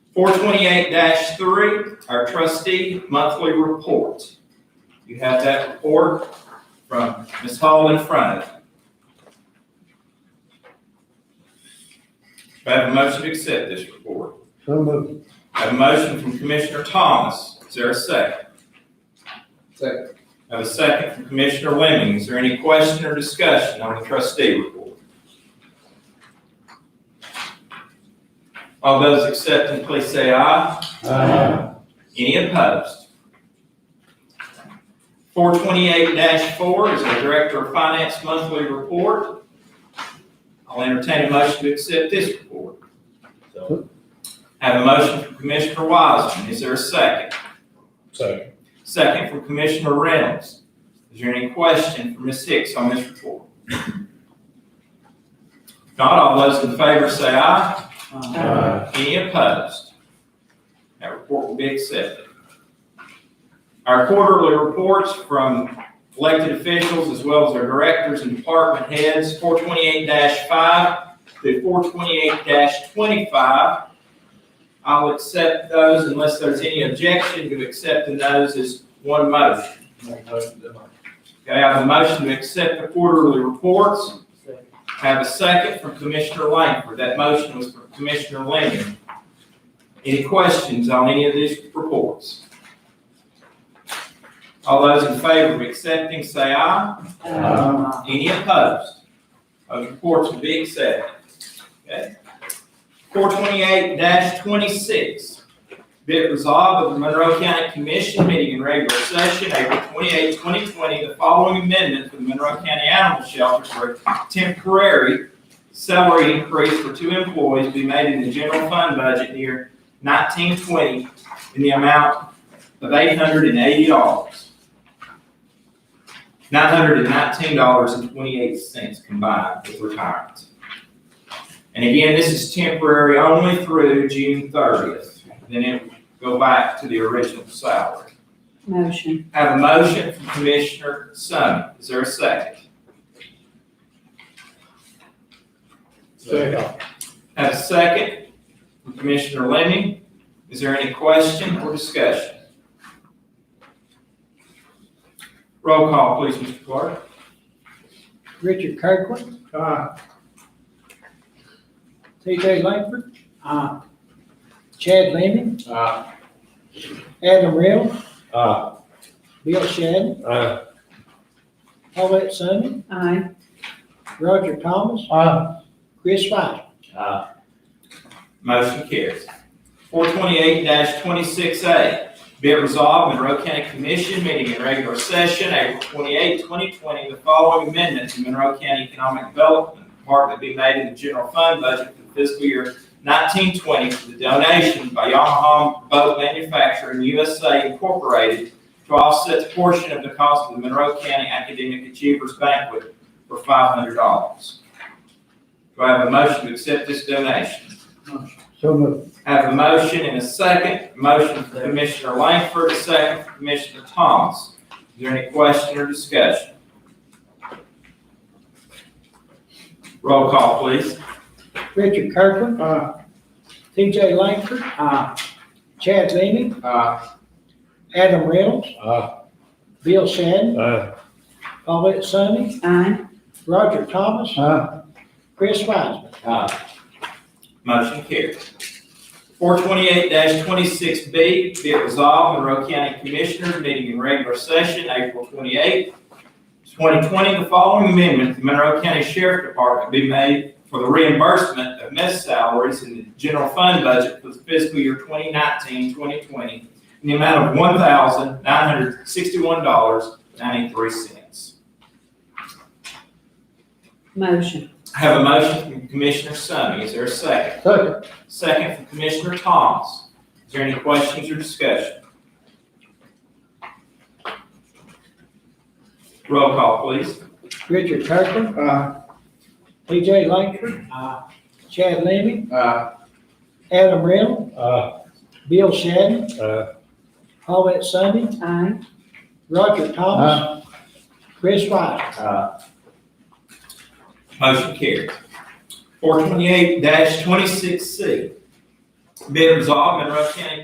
428-3, our trustee monthly report. You have that report from Ms. Hall in front of you. Do I have a motion to accept this report? So moved. I have a motion from Commissioner Thomas. Is there a second? Second. I have a second from Commissioner Lemming. Is there any question or discussion on the trustee report? All those accepting, please say aye. Any opposed? Four twenty-eight four is the Director of Finance Monthly Report. I'll entertain a motion to accept this report. So- Have a motion from Commissioner Wiseman. Is there a second? Second. Second from Commissioner Reynolds. Is there any question from Ms. Hicks on this report? If Not all those in favor say aye. Any opposed? That report will be accepted. Our quarterly reports from elected officials as well as our directors and department heads, four twenty-eight five through four twenty-eight twenty-five. I'll accept those unless there's any objection to accepting those as one motion. Okay, I have a motion to accept the quarterly reports. Have a second from Commissioner Langford. That motion was from Commissioner Lanning. Any questions on any of these reports? All those in favor of accepting, say aye. Any opposed? Those reports will be accepted. Okay. Four twenty-eight twenty-six. Be it resolved of the Monroe County Commission meeting in regular session, April 28, twenty twenty, the following amendment to the Monroe County Animal Shelter for temporary salary increase for two employees be made in the general fund budget year nineteen twenty in the amount of eight hundred and eighty dollars. Nine hundred and nineteen dollars and twenty-eight cents combined with retirement. And again, this is temporary only through June thirtieth, then it will go back to the original salary. Motion. Have a motion from Commissioner Summey, is there a second? Second. Have a second from Commissioner Lemming. Is there any question or discussion? Roll call, please, Mr. Clark. Richard Kirkland. T.J. Langford. Chad Leeny. Adam Reynolds. Aye. Bill Shannon. Aye. Paulette Summey. Aye. Roger Thomas. Chris Weisman. Motion carries. Four twenty-eight twenty-six A, be it resolved, Monroe County Commission meeting in regular session, April 28, twenty twenty, the following amendment to Monroe County Economic Development Department be made in the general fund budget for the fiscal year nineteen twenty for the donation by Yamaha Boat Manufacturing USA Incorporated to offset a portion of the cost of the Monroe County Academic Achievers Banquet for five hundred dollars. Do I have a motion to accept this donation? So moved. Have a motion and a second. Motion for Commissioner Langford, a second for Commissioner Thomas. Is there any question or discussion? Roll call, please. Richard Kirkland. T.J. Langford. Chad Leeny. Adam Reynolds. Aye. Bill Shannon. Aye. Paulette Summey. Aye. Roger Thomas. Aye. Chris Weisman. Uh, Motion carries. Four twenty-eight twenty-six B, be it resolved, Monroe County Commissioners meeting in regular session, April twenty-eighth, twenty twenty, the following amendment to Monroe County Sheriff Department be made for the reimbursement of missed salaries in the general fund budget for the fiscal year 2019-2020 in the amount of one thousand nine hundred sixty-one dollars ninety-three cents. Motion. I have a motion from Commissioner Summey. Is there a second? Second. Second from Commissioner Thomas. Is there any questions or discussion? Roll call, please. Richard Kirkland. T.J. Langford. Chad Leeny. Adam Reynolds. Aye. Bill Shannon. Aye. Paulette Summey. Aye. Roger Thomas. Chris Weisman. Motion carries. Four twenty-eight twenty-six C. Be it resolved, Monroe County